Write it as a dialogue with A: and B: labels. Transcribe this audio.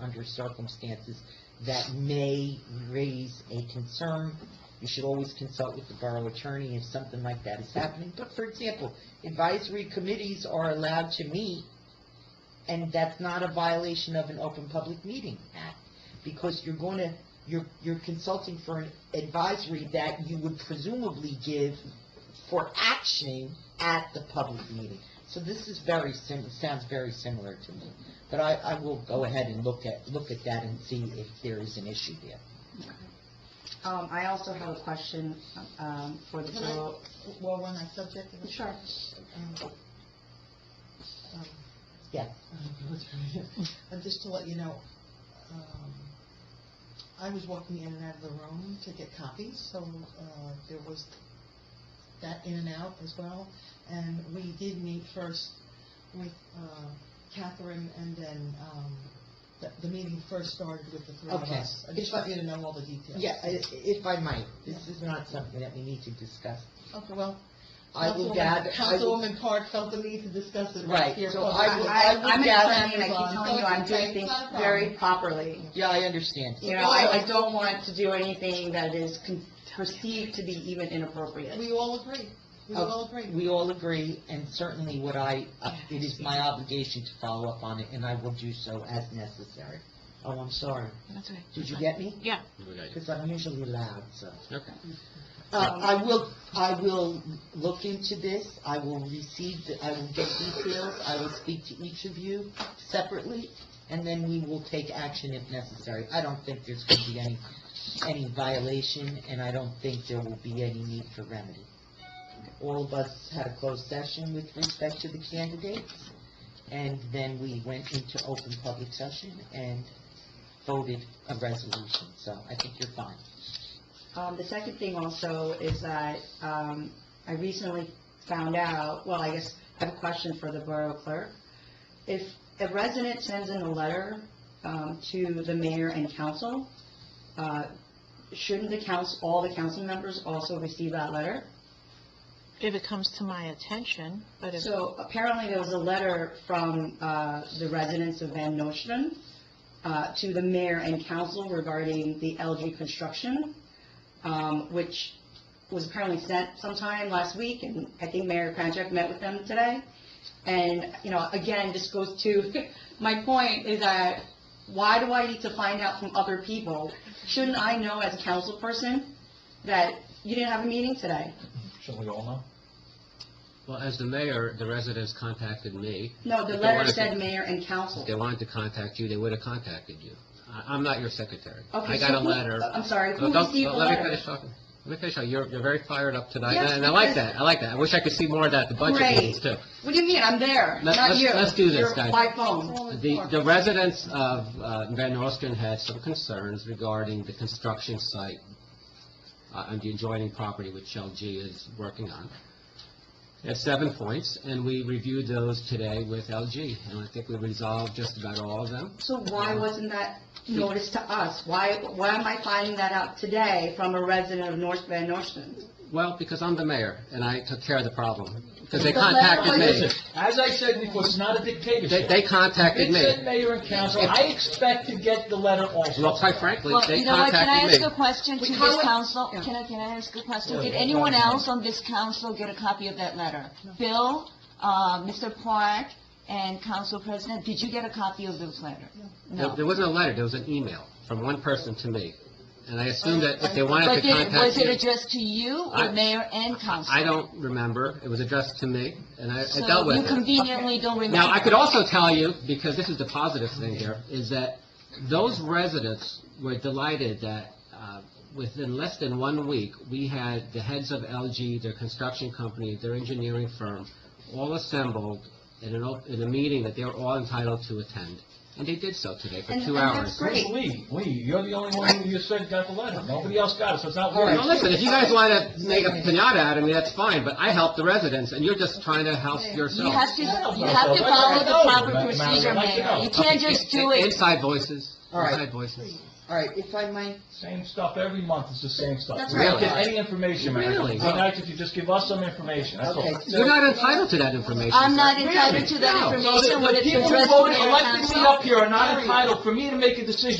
A: under circumstances that may raise a concern. You should always consult with the borough attorney if something like that is happening. But for example, advisory committees are allowed to meet, and that's not a violation of an Open Public Meeting Act, because you're gonna, you're, you're consulting for an advisory that you would presumably give for action at the public meeting. So this is very sim, sounds very similar to me, but I, I will go ahead and look at, look at that and see if there is an issue there.
B: Um, I also have a question, um, for the
C: Can I-
B: borough.
C: While we're on that subject,
B: Sure.
C: um, um,
A: Yeah.
C: and just to let you know, um, I was walking in and out of the room to get copies, so uh, there was that in and out as well. And we did meet first with uh, Catherine, and then um, the- the meeting first started with the three of
A: Okay.
C: us. I just want you to know all the details.
A: Yeah, i- if I might, this is not something that we need to discuss.
C: Okay, well,
A: I will
C: Councilwoman-
A: gather, I will,
C: Councilwoman Park felt the need to discuss it
A: Right,
C: right here.
A: so
C: publicly.
A: I will- I-
B: I'm
A: I'm
B: an
A: down.
B: attorney, and I keep telling you, I'm doing
C: Okay,
B: things
C: not a problem.
B: very properly.
A: yeah, I understand.
B: You know, I, I don't want to do anything that is con- perceived to be even inappropriate.
C: We all agree. We
A: Okay.
C: all agree.
A: Uh, We all agree, and certainly what I, uh, it is my obligation to follow up on it, and I will do so as necessary. Oh, I'm sorry.
D: That's right.
A: Did you get me?
D: Yeah.
A: Because I'm usually loud, so.
E: Okay.
A: Uh,
B: Um,
A: I will, I will look into this, I will receive, the- I will get details, I will speak to each of you separately, and then we will take action if necessary. I don't think there's going to be any, any violation, and I don't think there will be any need for remedy. All of us had a closed session with respect to the candidates, and then we went into open public session and voted a resolution, so I think you're fine.
B: Um, the second thing also is that, um, I recently found out, well, I guess I have a question for the borough clerk. If a resident sends in a letter, um, to the mayor and council, uh, shouldn't the council, all the council members also receive that letter?
D: If it comes to my attention, but if,
B: So apparently there was a letter from uh, the residents of Van Nostrand uh, to the mayor and council regarding the LG construction, um, which was apparently sent sometime last week, and I think Mayor Kranjak met with them today. And, you know, again, this goes to, my point is that, why do I need to find out from other people? Shouldn't I know as a council person that you didn't have a meeting today?
F: Shouldn't we all know?
E: Well, as the mayor, the residents contacted me.
B: No, the
E: If they
B: letter
E: wanted to-
B: said mayor and council.
E: If they wanted to contact you, they would have contacted you. I- I'm not your secretary.
B: Okay,
E: I
B: so
E: got a
B: who-
E: letter.
B: I'm sorry,
E: Oh,
B: who
E: don't-
B: received the
E: oh, Let me
B: letter?
E: finish talking. Let me finish. talking. You're, you're very fired up tonight,
B: Yes,
E: and I like
B: because-
E: that. I like that. I wish I could see more of that at the budget
B: Great.
E: meetings, too.
B: What do you mean? I'm there,
E: Let-
B: not
E: let's-
B: you.
E: let's do this,
B: You're
E: guys.
B: By phone.
E: The, the residents of uh, Van Nostrand had some concerns regarding the construction site uh, on the adjoining property which LG is working on. At seven points, and we reviewed those today with LG, and I think we resolved just about all of them.
B: So why wasn't that noticed to us? Why, why am I finding that out today from a resident of North Van Nostrand?
E: Well, because I'm the mayor, and I took care of the problem, because they
B: But let-
E: contacted me.
F: Listen, as I said before, it's not a
E: They,
F: dictatorship.
E: they contacted
F: It said
E: me.
F: mayor and council, I expect to get the letter also.
E: Well, quite frankly,
D: well,
E: they
D: you know what, can I ask
E: contacted me.
D: a question to
B: We
D: this
B: can't-
D: council?
B: Yeah.
D: Can I, can I ask a question?
F: Yeah,
D: Did
F: that's
D: anyone
F: fine.
D: else on this council get a copy of that letter? Bill, uh, Mr. Park, and Council President, did you get a copy of this letter?
E: There- There wasn't a letter, there was an email from one person to me, and I assumed that if they wanted to
D: But did, was
E: contact
D: it
E: you...
D: addressed to you or
E: I-
D: mayor and council?
E: I don't remember, it was addressed to me, and I I dealt
D: So you
E: with it.
D: conveniently don't remember.
E: Now, I could also tell you, because this is the positive thing here, is that those residents were delighted that uh, within less than one week, we had the heads of LG, their construction company, their engineering firm, all assembled in an op- in a meeting that they were all entitled to attend, and they did so today for
B: And-
E: two
B: and
E: hours.
B: that's
F: Where's
B: Great.
F: Lee? Lee, you're the only one who you said got the letter. Nobody else got it, so it's not
A: All
F: worth
A: right.
E: Well, listen, if you guys want to make a pinata out of me, that's fine, but I help the residents, and you're just trying to help yourself.
D: You have to,
F: No,
D: you have to
F: no,
D: follow
F: no,
D: the
F: no,
D: proper
F: no, no,
D: procedure,
F: no, no.
D: Mayor. You can't just do
E: In-
D: it.
E: Inside voices,
A: All right.
E: inside voices.
A: All right, if I might,
F: Same stuff every month, it's the same stuff.
A: That's
F: We don't
E: right.
F: get any information, Mayor.
E: Really?
F: It'd be nice if you just give us some information, that's all.
A: okay,
E: You're
A: so,
E: not entitled to that information.
D: I'm
E: sir.
D: not entitled to
E: No.
D: that
F: So the-
D: information when
F: the
D: it's
F: people who
D: addressed to
F: voted,
D: Mayor
F: elected me
D: Council.
F: up here are not entitled for me to make a decision.